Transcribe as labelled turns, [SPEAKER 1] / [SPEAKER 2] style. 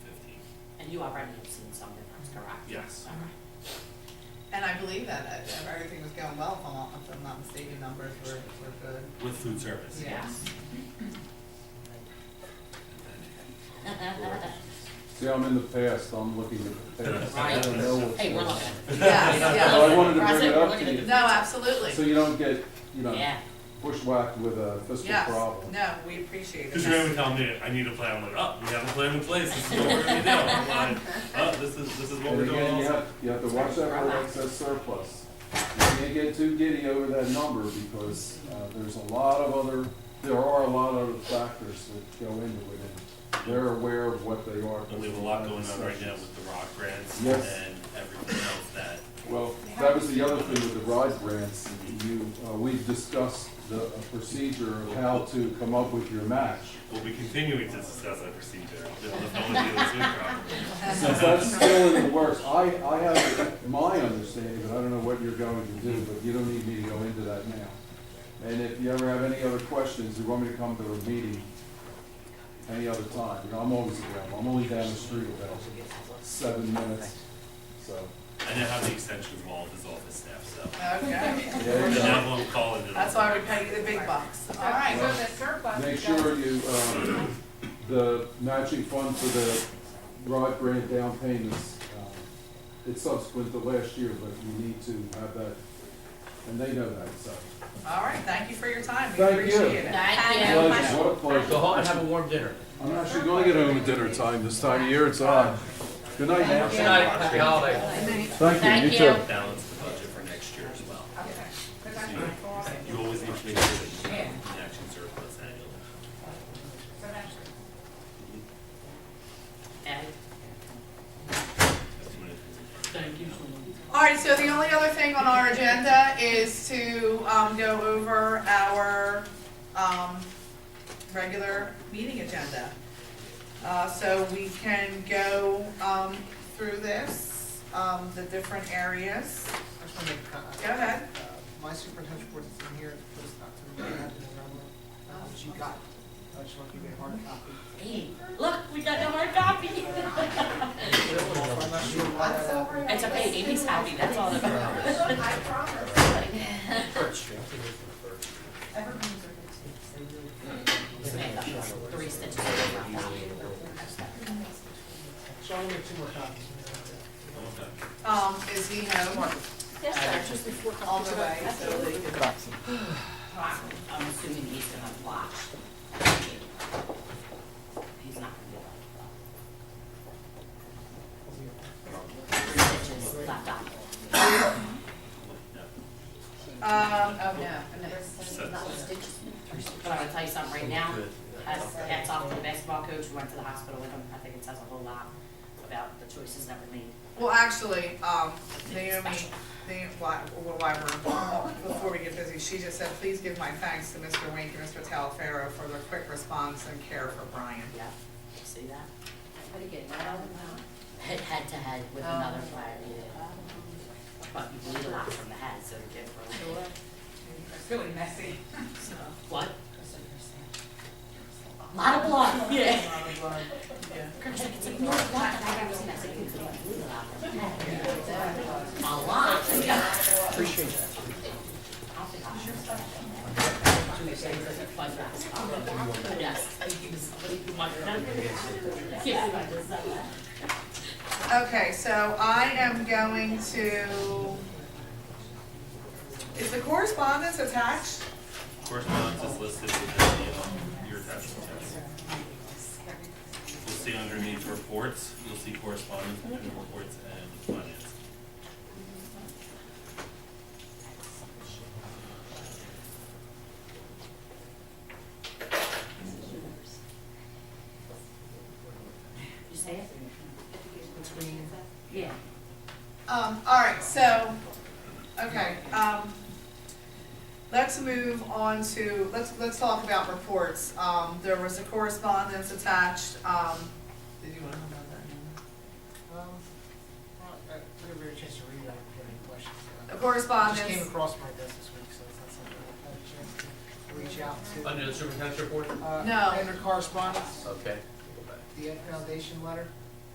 [SPEAKER 1] And you already have seen some of those, correct? Uh-huh.
[SPEAKER 2] Yes.
[SPEAKER 1] Okay.
[SPEAKER 3] And I believe that, that if everything was going well, if I'm not- if I'm not mistaken, numbers were, were good.
[SPEAKER 2] With food service.
[SPEAKER 3] Yeah.
[SPEAKER 1] Yes. Uh-uh.
[SPEAKER 4] See, I'm in the past, I'm looking at the past. I don't know
[SPEAKER 1] Right.
[SPEAKER 4] what's
[SPEAKER 1] Hey, we're
[SPEAKER 4] going on.
[SPEAKER 1] looking.
[SPEAKER 3] Yes,
[SPEAKER 4] Well, I wanted to
[SPEAKER 1] We're
[SPEAKER 4] bring it
[SPEAKER 1] looking.
[SPEAKER 4] up to you,
[SPEAKER 3] No, absolutely.
[SPEAKER 4] so you don't get, you know,
[SPEAKER 1] Yeah,
[SPEAKER 4] bushwhacked with a fiscal
[SPEAKER 3] Yes,
[SPEAKER 4] problem.
[SPEAKER 3] no, we appreciate
[SPEAKER 2] Because
[SPEAKER 3] it.
[SPEAKER 2] you're gonna tell me, I need a plan, I'm like, oh, we have a plan in place, this is what we're gonna do. I'm like, oh, this is, this is what
[SPEAKER 4] And
[SPEAKER 2] we're doing
[SPEAKER 4] again, you
[SPEAKER 2] also.
[SPEAKER 4] have, you have to watch out for excess surplus. You can't get too giddy over that number because, uh, there's a lot of other, there are a lot of other factors that go into it. and They're aware of what they are.
[SPEAKER 2] But we have a lot going on right now with the rock grants and
[SPEAKER 4] Yes.
[SPEAKER 2] everything else that,
[SPEAKER 4] Well, that was the other thing with the ride grants, you, uh, we've discussed the procedure of how to come up with your match.
[SPEAKER 2] we'll be continuing to discuss that procedure. If no one deals with it
[SPEAKER 4] Since that's still in the works, I, I have my understanding, but I don't know what you're going to do, but you don't need me to go into that now. And if you ever have any other questions, you want me to come to a meeting any other time, you know, I'm always available, I'm only down the street about seven minutes, so.
[SPEAKER 2] properly. I know how the extension of all of his office staff, so.
[SPEAKER 3] Okay,
[SPEAKER 4] there
[SPEAKER 2] And
[SPEAKER 4] you go.
[SPEAKER 2] now I'm calling it.
[SPEAKER 3] that's why we pay you the big bucks. All right,
[SPEAKER 5] So the surplus.
[SPEAKER 4] Make
[SPEAKER 5] goes-
[SPEAKER 4] sure you, um, the matching fund for the rod grant down payments, um, it's subsequent to last year, but you need to have that, and they know that, so.
[SPEAKER 3] all right, thank you for your time. We
[SPEAKER 4] Thank you.
[SPEAKER 3] appreciate it.
[SPEAKER 1] thank you.
[SPEAKER 4] Pleasure, what a
[SPEAKER 6] Go
[SPEAKER 4] pleasure.
[SPEAKER 6] home and have a warm dinner.
[SPEAKER 4] I'm actually gonna get home at dinner time this time of year, it's odd. Good night,
[SPEAKER 6] Good
[SPEAKER 4] now.
[SPEAKER 6] night, happy holidays.
[SPEAKER 4] Thank you,
[SPEAKER 1] Thank
[SPEAKER 4] you
[SPEAKER 1] you.
[SPEAKER 4] too.
[SPEAKER 2] Balance the budget for next year as well.
[SPEAKER 5] Okay. 'Cause I'm
[SPEAKER 2] Yeah.
[SPEAKER 5] like, well, so
[SPEAKER 2] You always need to make sure that you have an action surplus annually.
[SPEAKER 5] that's-
[SPEAKER 1] And
[SPEAKER 2] That's too many things in front of you.
[SPEAKER 1] thank you so much.
[SPEAKER 3] All right, so the only other thing on our agenda is to, um, go over our, um, regular meeting agenda. Uh, so we can go, um, through this, um, the different areas.
[SPEAKER 7] I just want to make a comment.
[SPEAKER 3] Go ahead.
[SPEAKER 7] Uh, My superintendent report is in here, it's not to me, I have it in Roma, uh, that you got. I just want to give you a hard copy.
[SPEAKER 1] Hey, look, we got the hard copy.
[SPEAKER 7] I'm not sure why that happened.
[SPEAKER 1] It's okay, Amy's happy, that's all that matters.
[SPEAKER 5] I promise. Evergreen's are good.
[SPEAKER 1] Just make up those Three stitches. on that copy.
[SPEAKER 7] So I'll make two more copies.
[SPEAKER 3] Um, is he home
[SPEAKER 8] Yes, sir. Just
[SPEAKER 3] all the way, so they can.
[SPEAKER 1] I'm assuming he's gonna watch. He's not gonna do that. Three stitches left out.
[SPEAKER 3] Um, oh, no, no.
[SPEAKER 1] But I'm gonna tell you something right now, hats, hats off to the basketball coach who went to the hospital with him, I think it says a whole lot about the choices that were made.
[SPEAKER 3] Well, actually, um, Naomi,
[SPEAKER 1] Special.
[SPEAKER 3] Naomi, why, well, why we're, before we get busy, she just said, please give my thanks to Mr. Wink and Mr. Talaferro for their quick response and care for Brian.
[SPEAKER 1] Yeah, see that?
[SPEAKER 8] But again, I don't know.
[SPEAKER 1] Head, head to head with another player, yeah. But you bleed a lot from the head, so to get from.
[SPEAKER 5] It's really messy.
[SPEAKER 1] What? Lot of blood, yeah.
[SPEAKER 3] Yeah.
[SPEAKER 1] It's like, no, it's not. I haven't seen that. It's like, it's like, bleed a lot from the head. A lot, yeah.
[SPEAKER 6] Appreciate that.
[SPEAKER 1] I'll think I'll sure start. Yes, I think it's- but you might remember. Yeah, I just said that.
[SPEAKER 3] Okay, so I am going to, is the correspondence attached?
[SPEAKER 2] Correspondence is listed within the, um, your attachment text. You'll see underneath reports, you'll see correspondence between reports and finance.
[SPEAKER 1] You say it?
[SPEAKER 7] Between
[SPEAKER 1] Yeah.
[SPEAKER 3] Um, all right, so, okay, um, let's move on to, let's, let's talk about reports. Um, there was a correspondence attached, um, did you wanna know about
[SPEAKER 7] Um, well, I I didn't really get a chance to read it, I didn't have any questions.
[SPEAKER 3] that? A
[SPEAKER 7] It Just
[SPEAKER 3] correspondence,
[SPEAKER 7] came across my desk this week, so it's not something I've had a chance to reach out to.
[SPEAKER 6] Under the superintendent's report?
[SPEAKER 7] Uh,
[SPEAKER 3] No.
[SPEAKER 7] Under correspondence,
[SPEAKER 6] Okay.
[SPEAKER 7] the Ed Foundation letter,